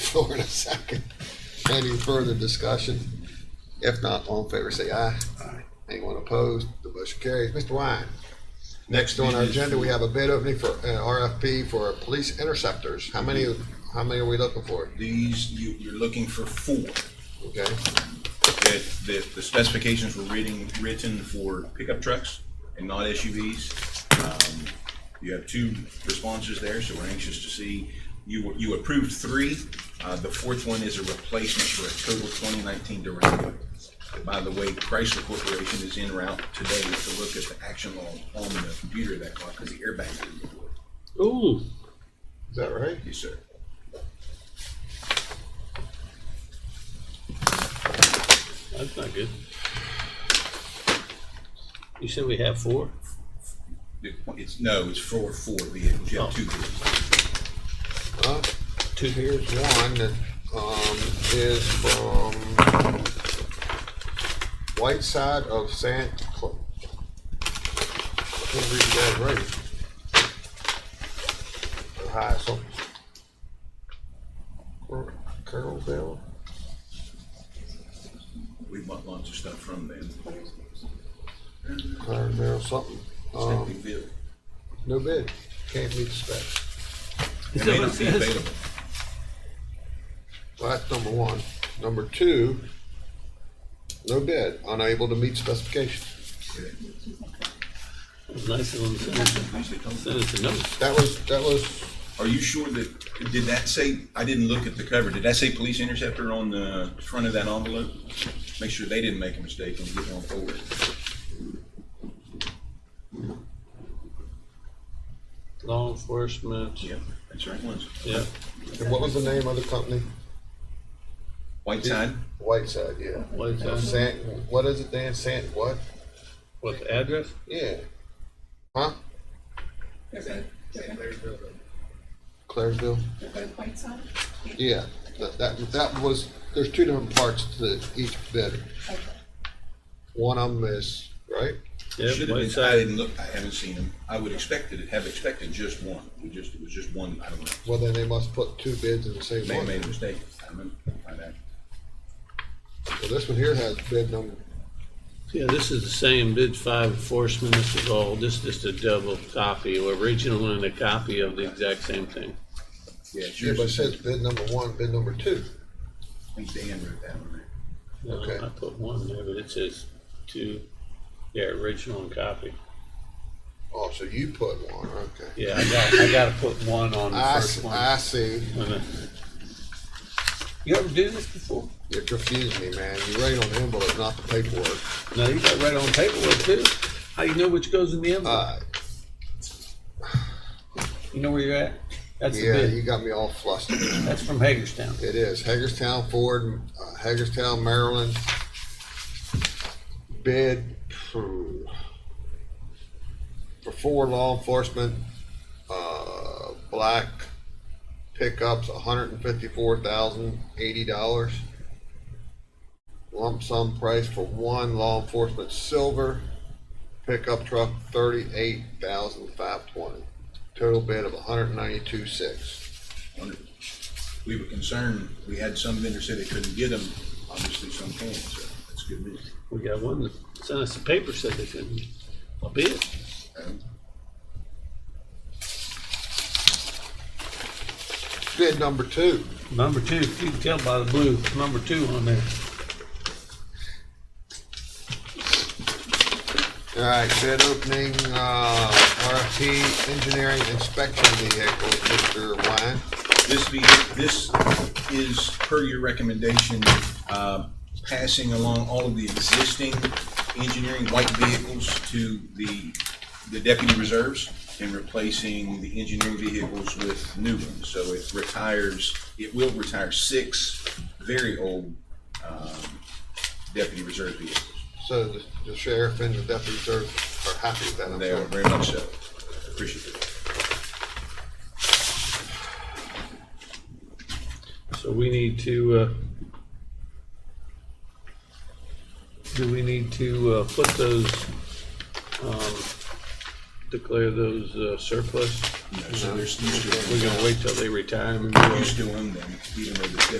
floor in a second. Any further discussion? If not, all in favor, say aye. Aye. Anyone opposed? The motion carries. Mr. Wine. Next on our agenda, we have a bid opening for uh, an RFP for police interceptors. How many, how many are we looking for? These, you, you're looking for four. Okay, That, that the specifications were written, written for pickup trucks and not SUVs. Um, You have two responses there, so we're anxious to see. You, you approved three. Uh, the fourth one is a replacement for a total twenty nineteen Durango. By the way, Chrysler Corporation is en route today to look at the action log on the computer of that car because the airbag didn't work. Ooh. is that right? Yes, sir. That's not good. You said we have four? It's, no, it's for four vehicles. You have two vehicles. Uh, Two, here's one that, um, is from White Side of San. Cla- I Can't read that right. Ohio, something. Cor- Carrollville? We bought lots of stuff from Oh. them. Carrollville, something. Um, Stepneyville. no bid, can't meet the specs. It that may what not it be says? available. Well, that's number one. Number two, no bid, unable to meet specifications. It was nice of them to send us- Usually comes- send us a note. That was, that was Are you sure that, did that say, I didn't look at the cover, did that say police interceptor on the front of that envelope? Make sure they didn't make a mistake and get on forward. Law enforcement. Yeah, that's right, ones. Yeah. And what was the name of the company? Whiteside, Whiteside, yeah. What is So that? Sant, what is it, Dan? Sant, what? What, the address? Yeah. Huh? Claresville? Whiteside? Yeah, that, that, that was, there's two different parts to each bid. One of them is, right? should Yeah, have been, I Whiteside. didn't look, I haven't seen them. I would expected, have expected just one, we just, it was just one, I don't know. Well, then they must put two bids in the same They one. made a mistake, I'm gonna find out. Well, this one here has bid number, Yeah, this is the same, did five enforcement, this is all, this is just a double copy, original and a copy of the exact same thing. Yeah, it's yeah, yours. but it says bid number one, bid number two. I think Dan wrote that one there. Uh, Okay. I put one there, but it says two, yeah, original and copy. Oh, so you put one, okay. Yeah, I got, I gotta put one on the I, first s- one. I see. Uh-huh. You ever do this before? You're confusing me, man. You write on the envelope, not the paperwork. No, you got right on paperwork too. How you know which goes in the envelope? Uh, You know where you're at? That's the yeah, bid. you got me all flustered. That's from Hagerstown. It is Hagerstown Ford, uh, Hagerstown, Maryland. Bid for for four law enforcement, uh, black pickups, hundred and fifty-four thousand, eighty dollars. Lump sum price for one law enforcement silver pickup truck, thirty-eight thousand, five twenty. Total bid of a hundred and ninety-two, six. Wonderful. We were concerned, we had some vendors say they couldn't get them, obviously some can, so that's good news. We got one that sent us a paper said they couldn't. A bid. Um, Bid number two. Number two, if you can tell by the blue, number two on there. All right, bid opening, uh, RFP engineering inspection vehicle, Mr. Wine. This be, this is per your recommendation, uh, passing along all of the existing engineering white vehicles to the, the deputy reserves and replacing the engineering vehicles with new ones. So it retires, it will retire six very old, um, deputy reserve vehicles. So the- the sheriff and the deputy sheriff are happy with that, I'm They are sure. very much so. Appreciate it. So we need to, uh, do we need to, uh, put those, um, declare those uh, surplus? you know, so they're still, We're gonna wait till they retire them and do it. used to them, even though they're